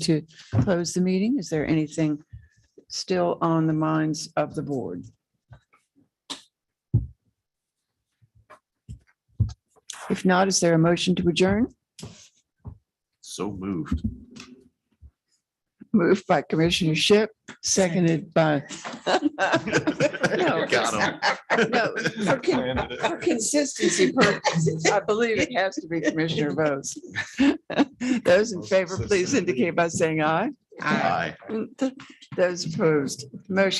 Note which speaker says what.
Speaker 1: to close the meeting. Is there anything still on the minds of the board? If not, is there a motion to adjourn?
Speaker 2: So moved.
Speaker 1: Moved by Commissioner Ship, seconded by.
Speaker 2: Got
Speaker 1: No, for con- for consistency purposes, I believe it has to be Commissioner Bose. Those in favor, please indicate by saying aye.
Speaker 2: Aye.
Speaker 1: Those opposed, motion